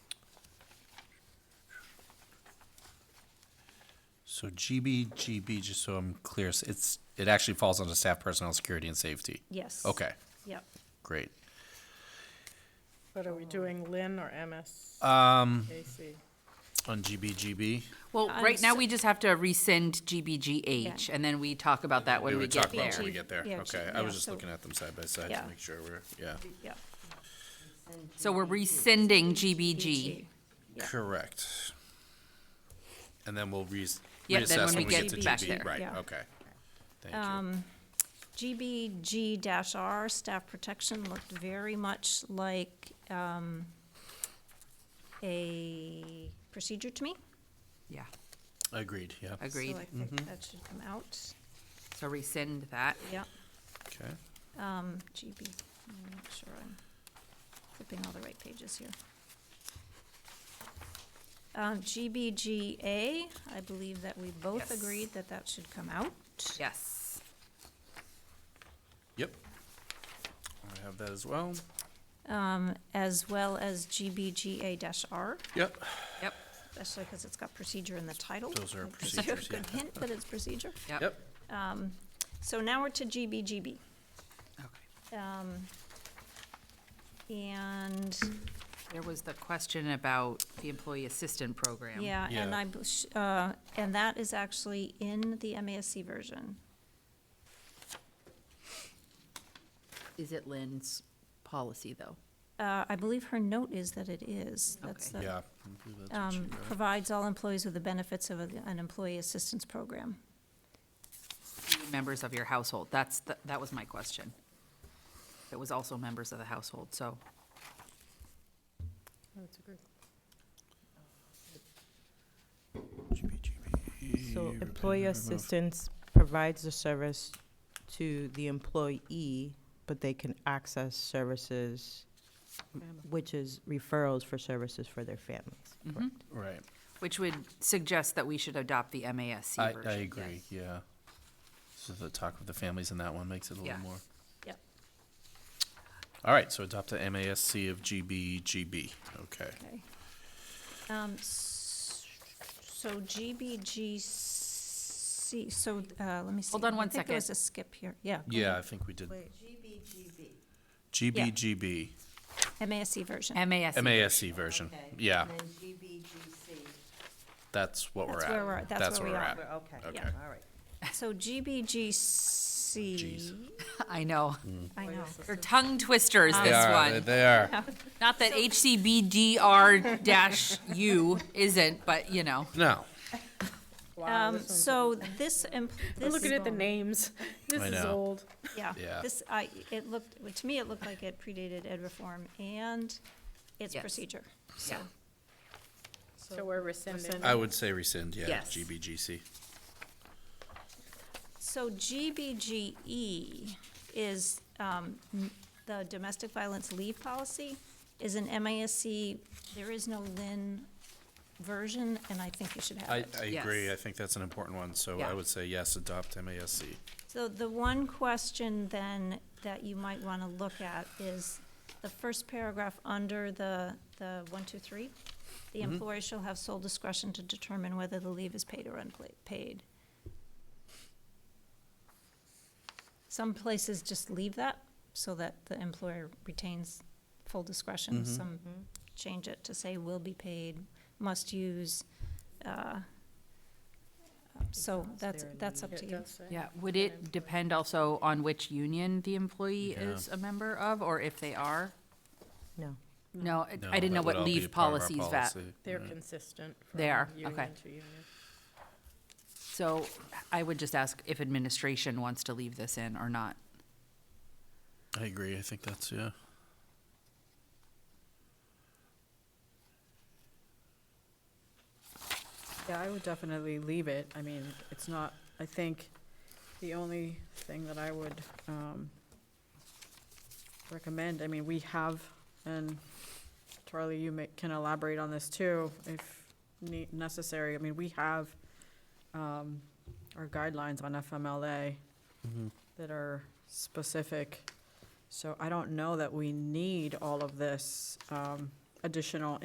So GB, GB, just so I'm clear, s- it's, it actually falls under staff personnel, security and safety. Yes. Okay, Yep. great. But are we doing Lynn or MS? Um, KC? on GB, GB, Well, I'm right now, so- we just have to rescind GBGH, Yeah. and then we talk about that we when we would get talk there. about when we Yeah, get there. yeah, Okay, yeah, I was just so- looking at them side by side Yeah. to make sure we're, yeah. Yep. So we're rescinding GBG. Yeah. Correct. And then we'll re- Yeah, then reassess when when we we get to get back GB, there. right, Yeah. okay. Thank you. GBG dash R, staff protection, looked very much like, um, a procedure to me. Yeah, Agreed, yeah. agreed. So I think that should come out, So rescind that. yep. Okay, Um, GB, let me make sure I'm flipping all the right pages here. Um, GBGA, I believe that we both Yes. agreed that that should come out. Yes. yep. I have that as well. Um, as well as GBGA dash R, Yep, Yep, especially because it's got procedure in the title. Those are I think that's a procedures, yeah. Good hint that it's procedure. yep. yep. So now we're to GBGB. Okay. Um, and There was the question about the employee assistant program. Yeah, and Yeah. I, bel- sh- uh, and that is actually in the MASC version. Is it Lynn's policy, though? Uh, I believe her note is that it is. That's Okay. the, Yeah. uh, I believe that's what she um, wrote. provides all employees with the benefits of a- an employee assistance program. Members of your household. That's, the- that was my question. It was also members of the household, so. That's a good- So employee assistance provides the service to the employee, but they can access services, which is referrals for services for their families. Correct. Right, Which would suggest that we should adopt the MASC I, version. I agree, yeah. So the talk with the families in that one makes it a little Yeah. more. Yep. All right, so adopt the MASC of GB, GB, okay. Okay. Um, s- So GBGC, so, uh, let me see. Hold on one I think there was second. a skip here, yeah. Mm-hmm. Yeah, I think we did. GB, GB, MASC version. MASC. MASC version, yeah, And then GBGC. that's what we're That's where we're at. at, that's where we are. Okay, all Okay, Um, right. So Oh, GBGC, I know. I know. They're tongue twisters, they this are, one. they are. Not that HCBDR dash U isn't, but you know. No, Wow, Um, this one's- so this, em- this. um, I'm looking at the names. This I is know. old. Yeah, Yeah. this, I, it looked, to me, it looked like it predated ed reform and its Yes. procedure. Yeah. So we're rescinding. I would say rescind, yeah, Yes. GBGC. So GBGE E is, um, n- the domestic violence leave policy is an MASC, there is no LIN version, and I think you should have I, it. I Yes. agree, I think that's an important one, so I Yeah. would say yes, adopt MASC. So the one question then that you might want to look at is the first paragraph under the, the one, two, three. The employer shall have sole discretion to determine whether the leave is paid or unpaid. Some places just leave that so that the employer retains full discretion. Some change it to say will be paid, must use, uh, so that's, that's up to you. Yeah, would it depend also on which union the employee is a member of, or if they are? No. No, I- No, I didn't know that would what all be leave part of our policies that. policy. They're consistent. from They are, union okay. to union. So I would just ask if administration wants to leave this in or not. I agree, I think that's, yeah. Yeah, I would definitely leave it. I mean, it's not, I think, the only thing that I would, um, recommend, I mean, we have, and Charlie, you may, can elaborate on this too, if ne- necessary. I mean, we have, um, our guidelines on FMLA that are specific. So I don't know that we need all of this, um, additional